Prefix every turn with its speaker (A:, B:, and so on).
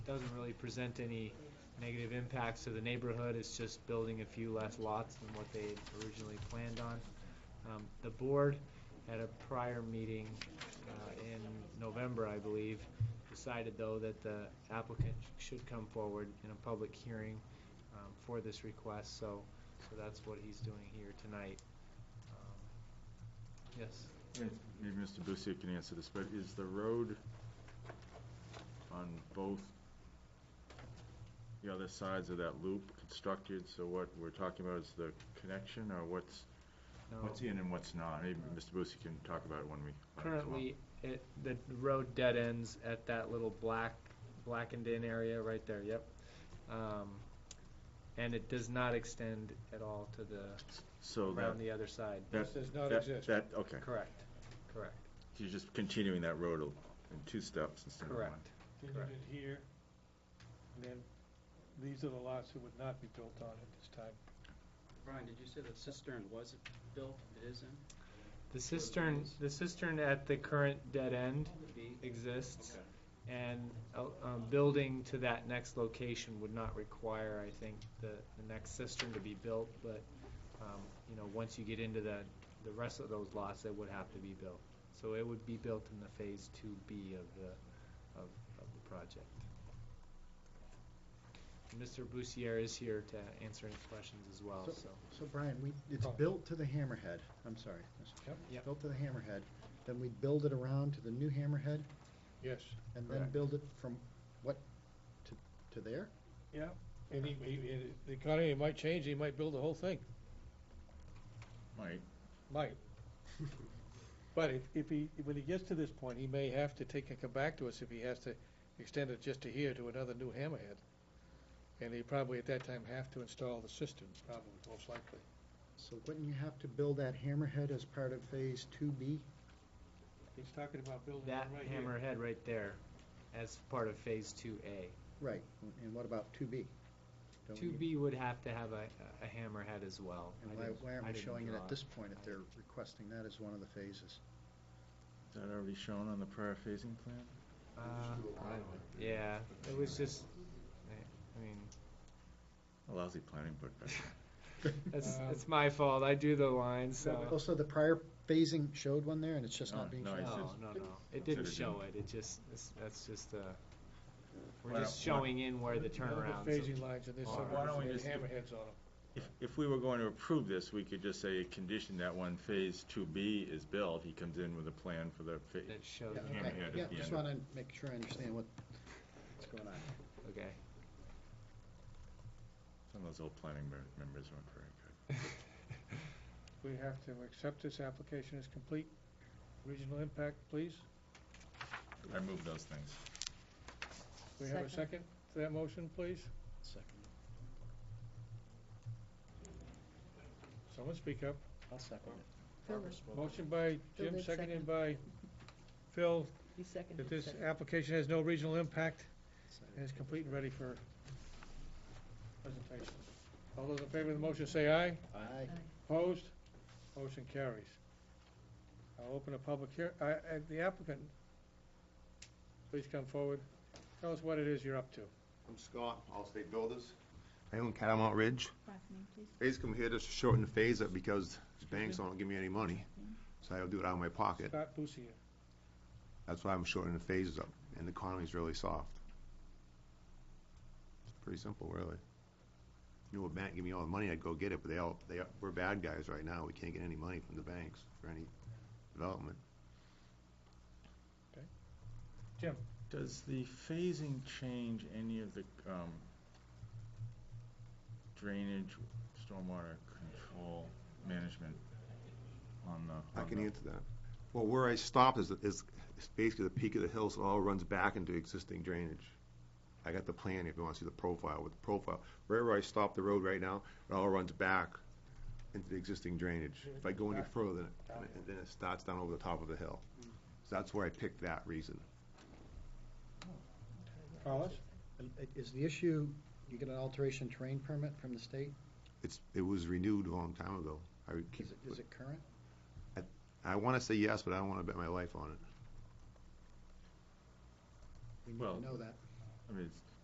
A: doesn't really present any negative impacts to the neighborhood, it's just building a few less lots than what they had originally planned on. Um, The board, at a prior meeting uh, in November, I believe, decided though that the applicant should come forward in a public hearing um, for this request, so, so that's what he's doing here tonight. Um, Yes.
B: And Maybe Mr. Busiek can answer this, but is the road on both the other sides of that loop constructed? So what we're talking about is the connection, or what's,
A: No.
B: what's in and what's not? Maybe Mr. Busiek can talk about it when we. learn as well.
A: Currently, it, the road dead ends at that little black, blackened in area right there, yep. Um, And it does not extend at all to the,
B: So that,
A: around the other side.
B: that.
C: This does not
B: that-
C: exist.
B: That, okay,
A: Correct, correct,
B: you're just continuing that road in two steps instead of one.
A: correct.
C: Then you
A: Correct.
C: did here, and then these are the lots that would not be built on at this time.
D: Brian, did you say the cistern was built, it is in?
A: The cistern, the cistern at the current dead end
D: B?
A: exists,
D: Okay.
A: and uh, um, building to that next location would not require, I think, the, the next cistern to be built, but, um, you know, once you get into the, the rest of those lots, that would have to be built. So it would be built in the Phase 2B of the, of, of the project. Mr. Bussier is here to answer any questions as well,
E: So-
A: so.
E: So Brian, we, it's
C: Oh.
E: built to the hammerhead, I'm sorry, Mr. Chairman.
A: Yep.
E: Built to the hammerhead, then we build it around to the new hammerhead,
C: Yes.
E: and then
A: Correct.
E: build it from what, to, to there?
C: Yeah, and he, he, and the economy might change, he might build the whole thing,
B: Right,
C: might. But if, if he, when he gets to this point, he may have to take and come back to us if he has to extend it just to here to another new hammerhead. And he probably at that time have to install the cistern, probably, most likely.
E: So wouldn't you have to build that hammerhead as part of phase two B?
C: He's talking about building
A: That hammerhead right there as part of Phase 2A.
E: Right, and what about two B?
A: Two B would have to have a, a hammerhead as well. I
E: And why,
A: didn't-
E: why
A: I
E: aren't we
A: didn't
E: showing it
A: draw
E: at this point if they're requesting that as one of the phases?
B: is that already shown on the prior phasing plan?
A: Uh, Yeah, it was just, I I mean,
B: A lousy planning book back then.
A: it's,
C: Um,
A: it's my fault, I do the lines, so.
E: Also, Oh, the prior phasing showed one there, and it's just
B: No,
E: not being
B: no,
A: No,
E: shown?
B: it's
A: no,
B: just
A: no, it didn't
B: considered
A: show it, it just, it's- that's just, uh, we're
B: Why
A: just
B: don't- why-
A: showing in where the turnarounds.
C: Phasing lines and this,
A: are.
B: Why don't we
C: and
B: just-
C: hammerheads on them.
B: If, if we were going to approve this, we could just say, condition that when Phase 2B is built, he comes in with a plan for the phase.
A: That shows,
E: Yeah,
B: Yeah,
E: okay.
B: yeah, at
E: Yeah,
B: the
E: just
B: end.
E: wanna make sure I understand what, what's going on.
A: okay.
B: Some of those old planning mer- members weren't very good.
C: We have to accept this application as complete. Regional impact, please.
B: I moved those things.
C: We have a second to that motion, please?
E: Second.
C: Someone speak up.
E: I'll second it.
C: Motion by
F: Phil
C: Jim,
F: did
C: seconded
F: second.
C: by Phil,
F: He seconded.
C: that this
F: it.
C: application has no regional impact
E: Second.
C: and is complete and ready for presentation. All those in favor of the motion say aye.
E: Aye.
C: Opposed? Motion carries. I'll open a public hear, I, I, the applicant, please come forward. Tell us what it is you're up to.
G: I'm Scott, Allstate Builders. I own Catamount Ridge.
F: Last name, please.
G: Basically, I'm here just to shorten the phase up because the banks don't give me any money, so I'll do it out of my pocket.
C: Scott Busier.
G: That's why I'm shortening the phases up, and the economy's really soft. It's pretty simple, really. Knew a bank give me all the money, I'd go get it, but they all, they, are- we're bad guys right now. We can't get any money from the banks for any development.
B: Does the phasing change any of the um, drainage, stormwater control management on the?
G: I
B: on
G: can
B: the-
G: answer that. Well, where I stopped is, is is basically the peak of the hill, so it all runs back into existing drainage. I got the plan, if you want to see the profile, with the profile, wherever I stop the road right now, it all runs back into the existing drainage. If I go any further, then it- then it starts down over the top of the hill.
E: Mm.
G: So that's where I picked that reason.
C: Carlos?
E: And i- Is the issue, you get an alteration terrain permit from the state?
G: It's, it was renewed a long time ago. I would keep,
E: Is it, is it current?
G: I want to say yes, but I don't want to bet my life on it.
E: We need
B: Well-
E: to know that.
B: I mean, it's-